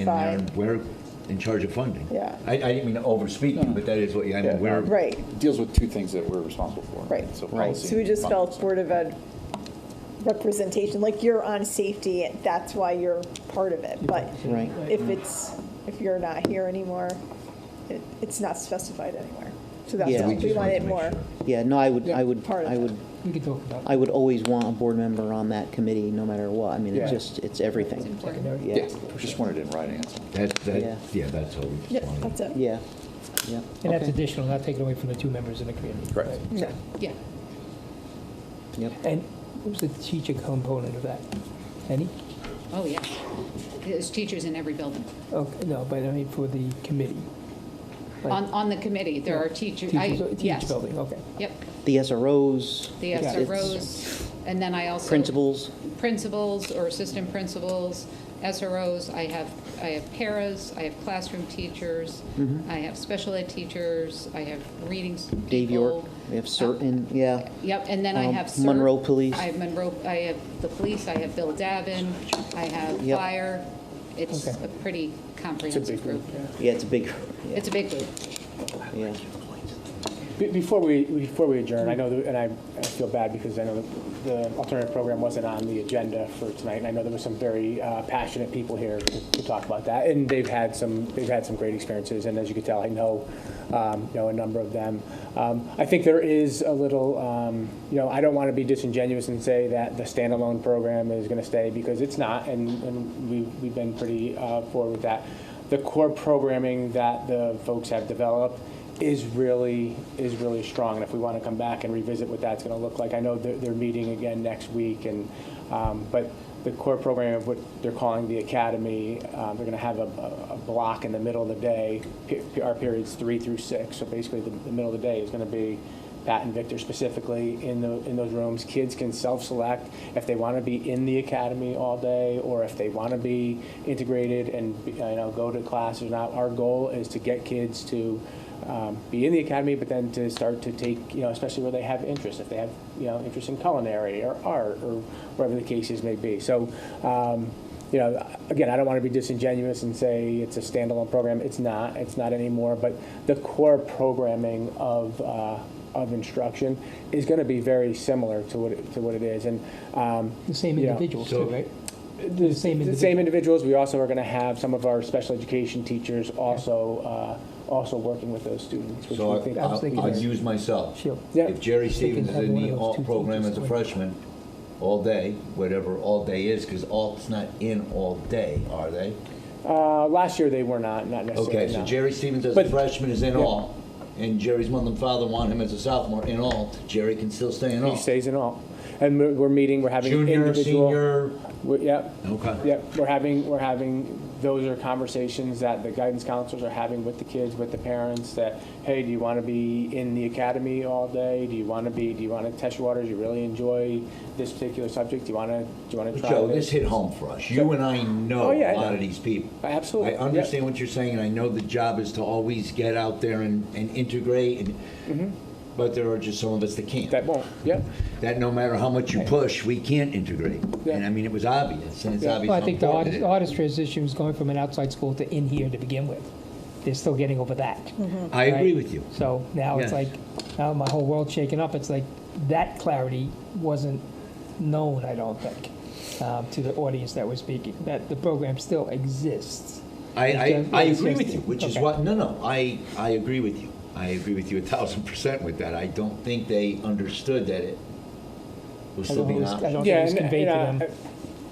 And Fine. uh, we're in charge of funding. Yeah. I, I didn't mean to overspeak you, but that is what, you- I Yeah. mean, we're. Right, It deals with two things that we're responsible for. Right. So Right. policy. so we just and felt funds. Board of Ed representation, like you're on safety, that's why you're part of it, but Right. if it's, if you're not here anymore, it, it's not specified anywhere. So that's, Yeah. all. We we just wanted wanted to make more. sure. Yeah, no, I would, I would, Part of I it. would, We could talk about I would always want a board member on that committee, no matter what. I mean, Yeah. it's just, it's everything. secondary. Yeah, Yeah, we just wanted it in writing. that's all. That, Yeah. that, yeah, that's all we Yep, just wanted. that's it. yeah, yeah. And that's Okay. additional, not taken away from the two members in the community. Correct. No. Yeah. Yep. And what was the teacher component of that? Any? Oh, yeah. There's teachers in every building. Okay, no, but I mean for the committee. Like On, on the committee, there are teachers. I- Teachers, teachers yes. building, okay. Yep, The SROs. the Yeah. SROs, and then I also. Principals. Principals or assistant principals, SROs, I have, I have paras, I have classroom teachers, I have special ed teachers, I have reading people. Dave York, we have certain, yeah. Yep, and then I Um, have. CERT, Monroe Police. I have Monroe, I have the police, I have Bill Davin, I have Yep. fire. It's Okay. a pretty comprehensive group. Yeah, it's a big, yeah, It's a big group. yeah. Be- Before we, before we adjourn, I know, that- and I I feel bad because I know the alternative program wasn't on the agenda for tonight, and I know there were some very uh, passionate people here to to talk about that, and they've had some, they've had some great experiences, and as you can tell, I know, um, you know, a number of them. Um, I think there is a little, um, you know, I don't want to be disingenuous and say that the standalone program is going to stay, because it's not, and and we- we've been pretty uh, forward with that. The core programming that the folks have developed is really, is really strong. And if we want to come back and revisit what that's going to look like, I know they're, they're meeting again next week and, um, but the core program of what they're calling the academy, um, they're going to have a, a- a block in the middle of the day. Pe- pe- Our periods three through six, so basically the, the middle of the day is going to be Pat and Victor specifically in the, in those rooms. Kids can self-select if they want to be in the academy all day or if they want to be integrated and, you know, go to class or not. Our goal is to get kids to um, be in the academy, but then to start to take, you know, especially where they have interest, if they have, you know, interest in culinary or art or whatever the cases may be. So, um, you know, again, I don't want to be disingenuous and say it's a standalone program. It's not. It's not anymore. But the core programming of uh, of instruction is going to be very similar to what it, to what it is. And um, The same Yeah. individuals too, So- right? the same the individual. same individuals. We also are going to have some of our special education teachers also uh, also working with those students, which So we think I- I was I'll, thinking I'll that. use myself. Sure. Yeah. If Jerry They can Stevens is have in one the of those two alt program teachers as a going. freshman, all day, whatever all day is, because alt's not in all day, are they? Uh, last year they were not, not necessarily. Okay, so not. Jerry Stevens as a But- freshman is in Yeah. alt, and Jerry's mother and father want him as a sophomore in alt, Jerry can still stay in He alt. stays in all, and we're, we're meeting. We're having Junior, individual. senior, we- Yep. okay. Yep. We're having we're having those are conversations that the guidance counselors are having with the kids, with the parents. That hey, do you want to be in the academy all day? Do you want to be? Do you want to test your waters? Do you really enjoy this particular subject? Do you want to? Do you want to try? Joe, this hit home for us. You and I know Oh, a yeah, I lot know. of these people. Absolutely, I yeah. understand what you're saying, and I know the job is to always get out there and, and integrate, and, but there are just some of us that can't. Mm-hmm. That won't. Yep. That no matter how much you push, we can't integrate. And I mean, it was obvious, and it's Yeah. obvious Well, I how think important the hardest, it the is. hardest transition was going from an outside school to in here to begin with. They're still getting over that. I agree right? with you. So now it's Yes. like, now my whole world's shaken up. It's like, that clarity wasn't known, I don't think, um, to the audience that was speaking, that the program still exists. I, I, It's I just- agree with you, which is Okay. why, no, no, I, I agree with you. I agree with you a thousand percent with that. I don't think they understood that it was I still don't being think it was- I optional. don't think it was conveyed to and, them.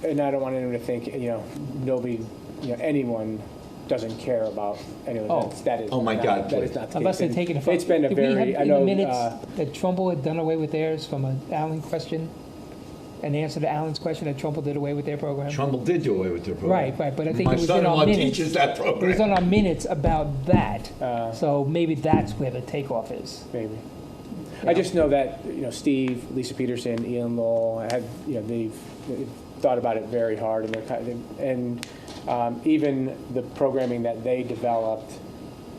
I, and I don't want anyone to think you know nobody, you know anyone doesn't care about anyone. Oh. That's, that is. Oh, my not, God, That please. is not the Unless case. they're taking a. It's been a Did we have very. I in know. the minutes uh, that Trumbull had done away with theirs from an Allen question, an answer to Allen's question that Trumbull did away with their program. Trumbull did do away with their program. Right, right, but I think My it was in son-in-law our minutes. teaches that It was program. on our minutes about that, Uh. so maybe that's where the takeoff is. Maybe. I just know that, you know, Steve, Lisa Peterson, Ian Lowell, have, you know, they've they've thought about it very hard, and they're, kind of- and um, even the programming that they developed,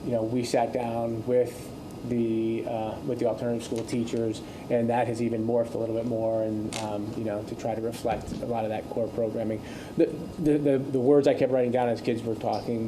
you know, we sat down with the, uh, with the alternative school teachers, and that has even morphed a little bit more, and, um, you know, to try to reflect a lot of that core programming. The, the, the- the words I kept writing down as kids were talking